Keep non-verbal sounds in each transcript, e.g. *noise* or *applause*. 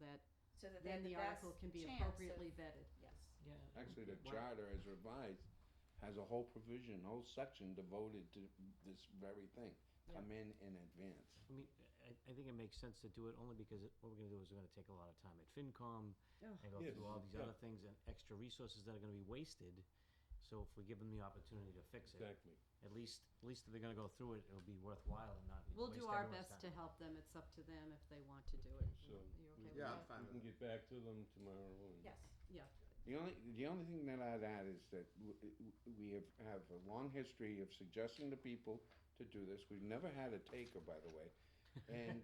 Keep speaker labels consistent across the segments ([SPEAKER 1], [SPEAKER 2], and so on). [SPEAKER 1] that
[SPEAKER 2] so that they
[SPEAKER 1] then the
[SPEAKER 2] have the best
[SPEAKER 1] article can be
[SPEAKER 2] chance
[SPEAKER 1] appropriately
[SPEAKER 2] of-
[SPEAKER 1] vetted.
[SPEAKER 2] Yes.
[SPEAKER 3] Yeah.
[SPEAKER 4] Actually, the
[SPEAKER 3] Why-
[SPEAKER 4] charter as revised has a whole provision, whole section devoted to this very thing. Come in in advance.
[SPEAKER 3] I mean, I, I think it makes sense to do it only because it- what we're gonna do is we're gonna take a lot of time at FinCom
[SPEAKER 1] Ugh.
[SPEAKER 3] and go
[SPEAKER 4] Yes,
[SPEAKER 3] through all these
[SPEAKER 4] yeah.
[SPEAKER 3] other things and extra resources that are gonna be wasted. So if we give them the opportunity to fix it, at least, at least if they're gonna go through it, it'll be worthwhile and not waste
[SPEAKER 1] We'll do our
[SPEAKER 3] everyone's
[SPEAKER 1] best to
[SPEAKER 3] time.
[SPEAKER 1] help them. It's up to them if they want to do it.
[SPEAKER 5] So
[SPEAKER 1] Are you okay
[SPEAKER 5] we-
[SPEAKER 1] with
[SPEAKER 6] Yeah, I'm
[SPEAKER 1] that?
[SPEAKER 6] fine
[SPEAKER 5] We can
[SPEAKER 6] with it.
[SPEAKER 5] get back to them tomorrow and.
[SPEAKER 2] Yes.
[SPEAKER 1] Yeah,
[SPEAKER 4] The only, the only thing that I'd add is that w- w- we have, have a long history of suggesting to people to do this. We've never had a taker, by the way.
[SPEAKER 3] *laughs*
[SPEAKER 4] And,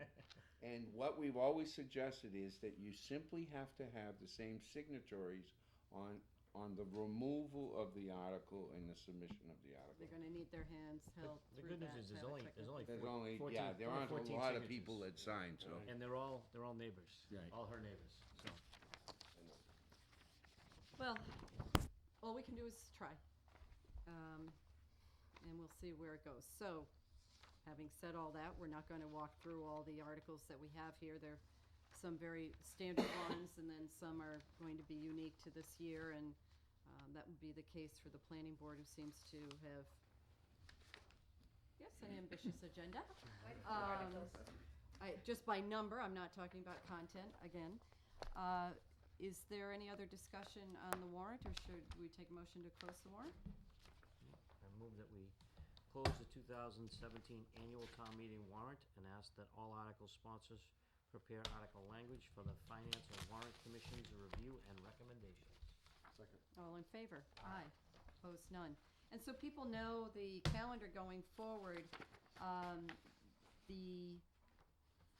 [SPEAKER 4] and what we've always suggested is that you simply have to have the same signatories on, on the removal of the article and the submission of the article.
[SPEAKER 1] they're gonna need their hands held
[SPEAKER 3] The
[SPEAKER 1] through
[SPEAKER 3] good
[SPEAKER 1] that
[SPEAKER 3] news is there's
[SPEAKER 1] to have a
[SPEAKER 3] only,
[SPEAKER 1] quick
[SPEAKER 3] there's
[SPEAKER 1] look.
[SPEAKER 3] only
[SPEAKER 4] There's
[SPEAKER 3] four-
[SPEAKER 4] only,
[SPEAKER 3] 14
[SPEAKER 4] yeah, there aren't a
[SPEAKER 3] 14
[SPEAKER 4] lot of
[SPEAKER 3] signatures.
[SPEAKER 4] people that sign, so.
[SPEAKER 3] And they're all, they're all neighbors,
[SPEAKER 4] Right.
[SPEAKER 3] all her neighbors, so.
[SPEAKER 1] Well, all we can do is try. Um, And we'll see where it goes. So, having said all that, we're not going to walk through all the articles that we have here. There are some very standard ones, and then some are going to be unique to this year. And um, that would be the case for the planning board, who seems to have, yes, an ambitious agenda.
[SPEAKER 2] Why do you
[SPEAKER 1] Um,
[SPEAKER 2] articles?
[SPEAKER 1] I, just by number, I'm not talking about content, again. Uh, Is there any other discussion on the warrant, or should we take a motion to close the warrant?
[SPEAKER 3] I move that we close the two thousand seventeen annual town meeting warrant and ask that all article sponsors prepare article language for the Finance and Warrant Commission's review and recommendations.
[SPEAKER 6] Second.
[SPEAKER 1] All in favor? Aye. Opposed, none. And so people know the calendar going forward. Um, The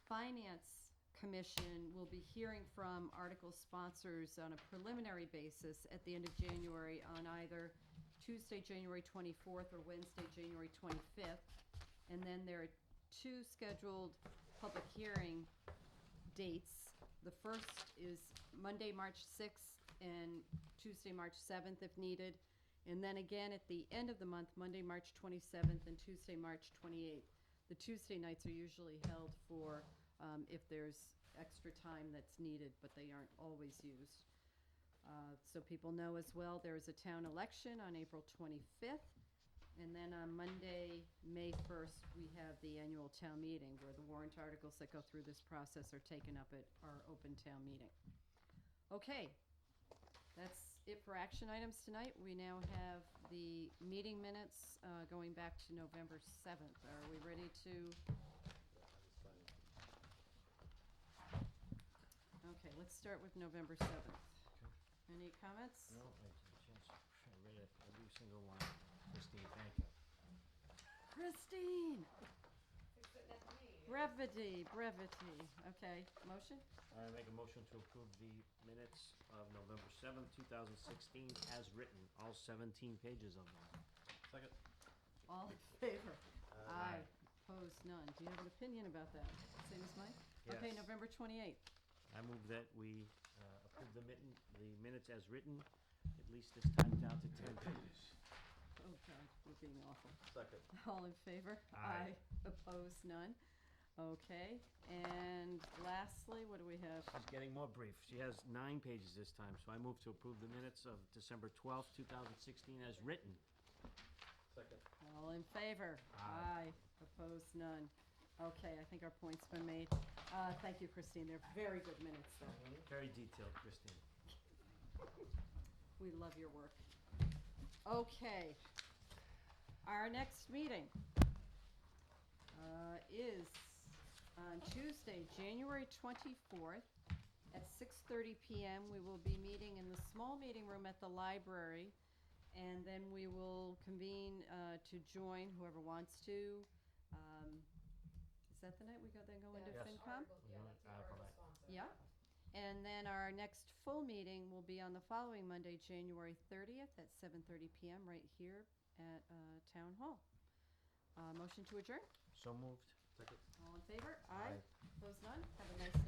[SPEAKER 1] Finance Commission will be hearing from article sponsors on a preliminary basis at the end of January on either Tuesday, January 24th, or Wednesday, January 25th. And then there are two scheduled public hearing dates. The first is Monday, March 6th and Tuesday, March 7th if needed. And then again at the end of the month, Monday, March 27th and Tuesday, March 28th. The Tuesday nights are usually held for um, if there's extra time that's needed, but they aren't always used. Uh, So people know as well, there is a town election on April 25th. And then on Monday, May 1st, we have the annual town meeting where the warrant articles that go through this process are taken up at our open town meeting. Okay, that's it for action items tonight. We now have the meeting minutes uh, going back to November 7th. Are we ready to? Okay, let's start with November 7th. Any comments?
[SPEAKER 3] No, I just, I read it, every single one. Christine, thank you.
[SPEAKER 1] Christine,
[SPEAKER 2] It's good enough for me.
[SPEAKER 1] brevity, brevity. Okay, motion?
[SPEAKER 3] I make a motion to approve the minutes of November seventh, two thousand sixteen, as written, all seventeen pages of them. Second.
[SPEAKER 1] All in favor? Aye. Opposed, none. Do you have an opinion about that? Same as mine? Okay,
[SPEAKER 3] Yes.
[SPEAKER 1] November 28th.
[SPEAKER 3] I move that we uh, approve the mitten, the minutes as written, at least this time down to ten pages.
[SPEAKER 1] Oh, God, we're being awful. *laughs*
[SPEAKER 6] Second.
[SPEAKER 1] All in favor?
[SPEAKER 3] Aye.
[SPEAKER 1] Opposed, none. Okay, and lastly, what do we have?
[SPEAKER 3] She's getting more brief. She has nine pages this time, so I move to approve the minutes of December twelfth, two thousand sixteen as written.
[SPEAKER 6] Second.
[SPEAKER 1] All in favor? Aye. Opposed, none. Okay, I think our point's been made. Uh, Thank you, Christine. They're very good minutes, though.
[SPEAKER 3] Very detailed, Christine.
[SPEAKER 1] We love your work. Okay. Our next meeting uh, is on Tuesday, January 24th at 6:30 PM. We will be meeting in the small meeting room at the library. And then we will convene uh, to join whoever wants to. Um, Is that the night we go, then go into
[SPEAKER 2] That's
[SPEAKER 3] Yes.
[SPEAKER 1] FinCom?
[SPEAKER 2] article- Yeah,
[SPEAKER 3] Mhm.
[SPEAKER 2] that's an article
[SPEAKER 3] Article nine.
[SPEAKER 2] sponsor.
[SPEAKER 1] Yeah. And then our next full meeting will be on the following Monday, January thirtieth, at seven thirty PM, right here at, uh, Town Hall. Uh, motion to adjourn,
[SPEAKER 3] So moved.
[SPEAKER 6] Second.
[SPEAKER 1] all in favor?
[SPEAKER 3] Aye.
[SPEAKER 1] Opposed none, have a nice night.